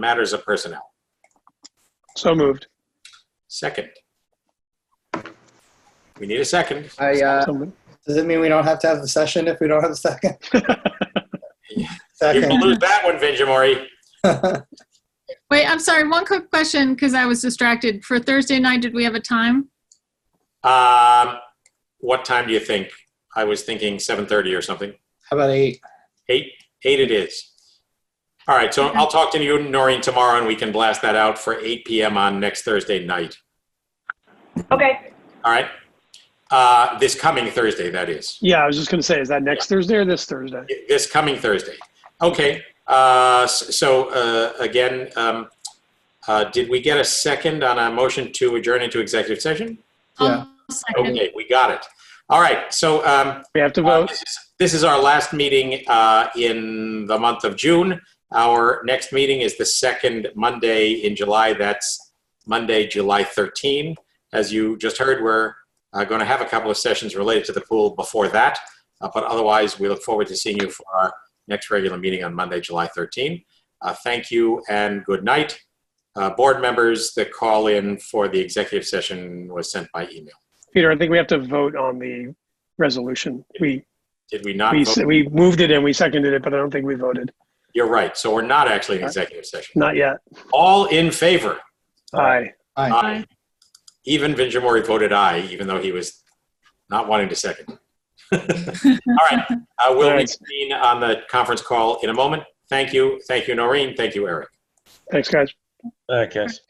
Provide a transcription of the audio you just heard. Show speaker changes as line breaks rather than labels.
matters of personnel.
So moved.
Second. We need a second.
I, uh,
So moved.
does it mean we don't have to have the session if we don't have a second?
You can
Second.
lose that one, Vinjamori.
Wait, I'm sorry, one quick question, because I was distracted. For Thursday night, did we have a time?
Um, what time do you think? I was thinking 7:30 or something.
How about eight?
Eight, eight it is. All right, so I'll talk to you, Noreen, tomorrow, and we can blast that out for 8 PM on next Thursday night.
Okay,
All right? Uh, This coming Thursday, that is.
Yeah, I was just going to say, is that next Thursday or this Thursday?
This coming Thursday. Okay, uh, s- so uh, again, um, uh, did we get a second on a motion to adjourn into executive session?
Yeah.
I'll Second.
Okay, we got it. All right, so um,
We have to
Uh,
vote.
This is- this is our last meeting uh, in the month of June. Our next meeting is the second Monday in July. That's Monday, July 13. As you just heard, we're going to have a couple of sessions related to the pool before that. Uh, But otherwise, we look forward to seeing you for our next regular meeting on Monday, July 13. Uh, Thank you and good night. Uh, Board members, the call-in for the executive session was sent by email.
Peter, I think we have to vote on the resolution. We,
Did we not?
we,
vote?
s- we moved it and we seconded it, but I don't think we voted.
You're right. So we're not actually in executive session.
Not yet.
All in favor?
Aye.
Aye.
Aye.
Even Vinjamori voted aye, even though he was not wanting to second. All right, uh, we'll
All right.
reconvene on the conference call in a moment. Thank you, thank you, Noreen, thank you, Eric.
Thanks, guys.
All right, guys.